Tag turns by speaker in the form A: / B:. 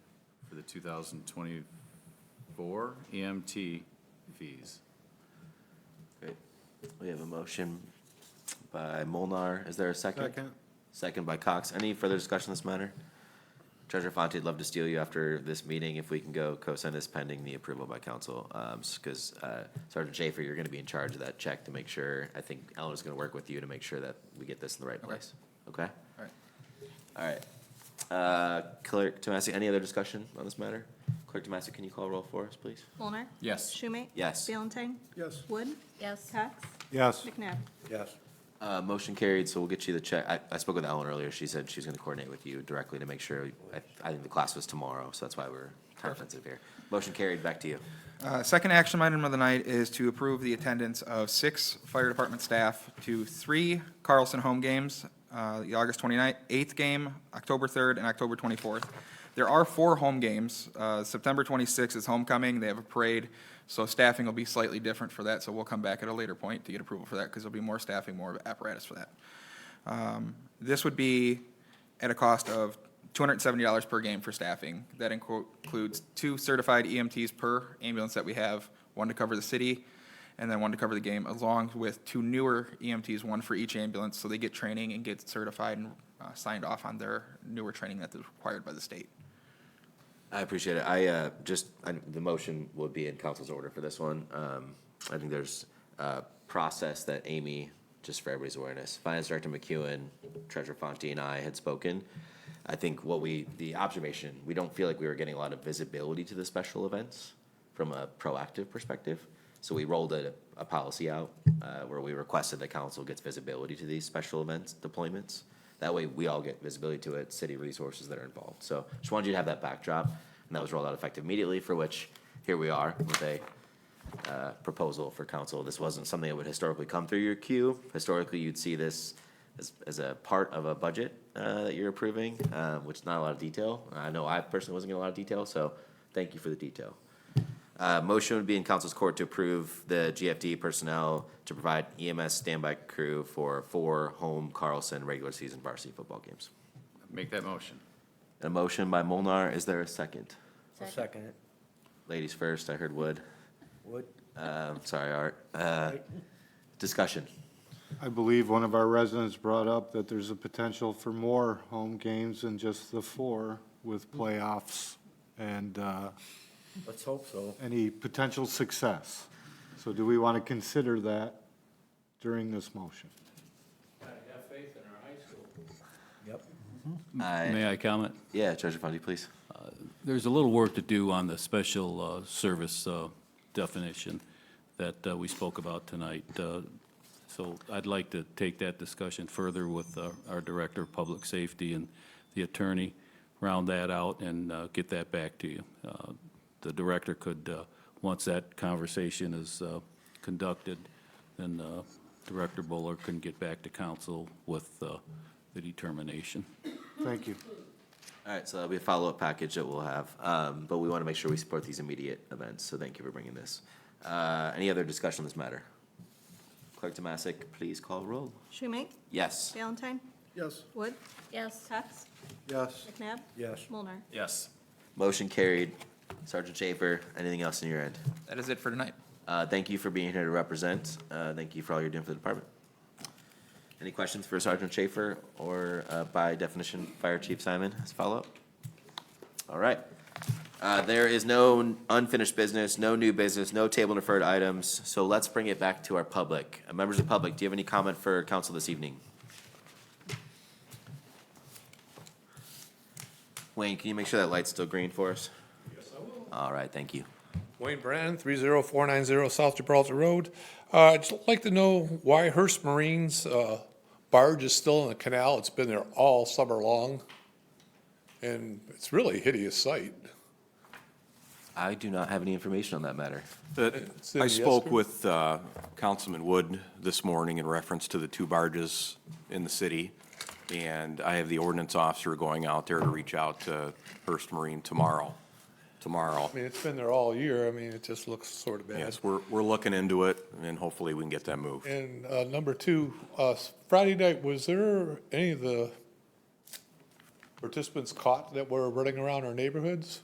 A: the 2024 EMT E fees.
B: Great. We have a motion by Molnar. Is there a second?
C: Second.
B: Second by Cox. Any further discussion on this matter? Treasurer Fonte, I'd love to steal you after this meeting if we can go co-sign this pending the approval by council. um, Because uh, Sergeant Schaefer, you're going to be in charge of that check to make sure, I think Eleanor's going to work with you to make sure that we get this in the right place. Okay?
A: All right.
B: All right. Uh, Clerk Tomasi, any other discussion on this matter? Clerk Tomasi, can you call roll for us, please?
D: Mulner?
A: Yes.
D: Schumate?
B: Yes.
D: Valentine?
C: Yes.
D: Wood?
E: Yes.
D: Cox?
C: Yes.
D: McNabb?
C: Yes.
B: Uh, motion carried, so we'll get you the check. I, I spoke with Ellen earlier. She said she's gonna coordinate with you directly to make sure. I, I think the class was tomorrow, so that's why we're time sensitive here. Motion carried, back to you.
F: Uh, Second action item of the night is to approve the attendance of six fire department staff to three Carlson home games, uh, the August 29th, 8th game, October 3rd, and October 24th. There are four home games. Uh, September 26th is homecoming, they have a parade, so staffing will be slightly different for that, so we'll come back at a later point to get approval for that, because there'll be more staffing, more apparatus for that. Um, This would be at a cost of $270 per game for staffing. That inco- includes two certified EMTs per ambulance that we have, one to cover the city and then one to cover the game, along with two newer EMTs, one for each ambulance, so they get training and get certified and uh, signed off on their newer training that is required by the state.
B: I appreciate it. I, uh, just, I, the motion would be in council's order for this one. Um, I think there's a process that Amy, just for everybody's awareness, Finance Director McEwen, Treasurer Fonte and I had spoken. I think what we, the observation, we don't feel like we were getting a lot of visibility to the special events from a proactive perspective. So we rolled a, a policy out, uh, where we requested the council gets visibility to these special events deployments. That way, we all get visibility to it, city resources that are involved. So just wanted you to have that backdrop, and that was rolled out effective immediately, for which here we are with a uh, proposal for council. This wasn't something that would historically come through your queue. Historically, you'd see this as, as a part of a budget uh, that you're approving, uh, which is not a lot of detail. I know I personally wasn't getting a lot of detail, so thank you for the detail. Uh, Motion would be in council's court to approve the GFD personnel to provide EMS standby crew for four home Carlson regular season varsity football games.
A: Make that motion.
B: A motion by Molnar, is there a second?
C: I'll second it.
B: Ladies first, I heard Wood.
C: Would.
B: Um, Sorry, Art. Uh, Discussion.
G: I believe one of our residents brought up that there's a potential for more home games than just the four with playoffs and uh,
C: Let's hope so.
G: any potential success. So do we want to consider that during this motion?
C: Yep.
B: I-
H: May I comment?
B: Yeah, Treasurer Fundy, please.
H: There's a little work to do on the special uh, service uh, definition that uh, we spoke about tonight. Uh, So I'd like to take that discussion further with uh, our Director of Public Safety and the attorney, round that out and uh, get that back to you. Uh, The Director could, uh, once that conversation is uh, conducted, then uh, Director Buller can get back to council with uh, the determination.
G: Thank you.
B: All right, so that'll be a follow-up package that we'll have, um, but we want to make sure we support these immediate events, so thank you for bringing this. Uh, Any other discussion on this matter? Clerk Tomasic, please call roll.
D: Schumate?
B: Yes.
D: Valentine?
C: Yes.
D: Wood?
E: Yes.
D: Cox?
C: Yes.
D: McNabb?
C: Yes.
D: Mulner?
A: Yes.
B: Motion carried. Sergeant Schaefer, anything else on your end?
F: That is it for tonight.
B: Uh, Thank you for being here to represent. Uh, Thank you for all you're doing for the department. Any questions for Sergeant Schaefer or uh, by definition, Fire Chief Simon as follow-up? All right. Uh, There is no unfinished business, no new business, no table deferred items, so let's bring it back to our public. Uh, Members of the public, do you have any comment for council this evening? Wayne, can you make sure that light's still green for us? Yes, I will. All right, thank you.
I: Wayne Brand, 30490 South Gibraltar Road. Uh, I'd just like to know why Hearst Marine's uh, barge is still in the canal. It's been there all summer long, and it's really a hideous sight.
B: I do not have any information on that matter.
J: The-
I: It's in
J: I
I: the
J: spoke
I: escrow?
J: with uh, Councilman Wood this morning in reference to the two barges in the city, and I have the ordinance officer going out there to reach out to First Marine tomorrow, tomorrow.
I: I mean, it's been there all year. I mean, it just looks sort of bad.
J: Yes, we're, we're looking into it, and hopefully we can get that moved.
I: And uh, number two, uh, Friday night, was there any of the participants caught that were running around our neighborhoods?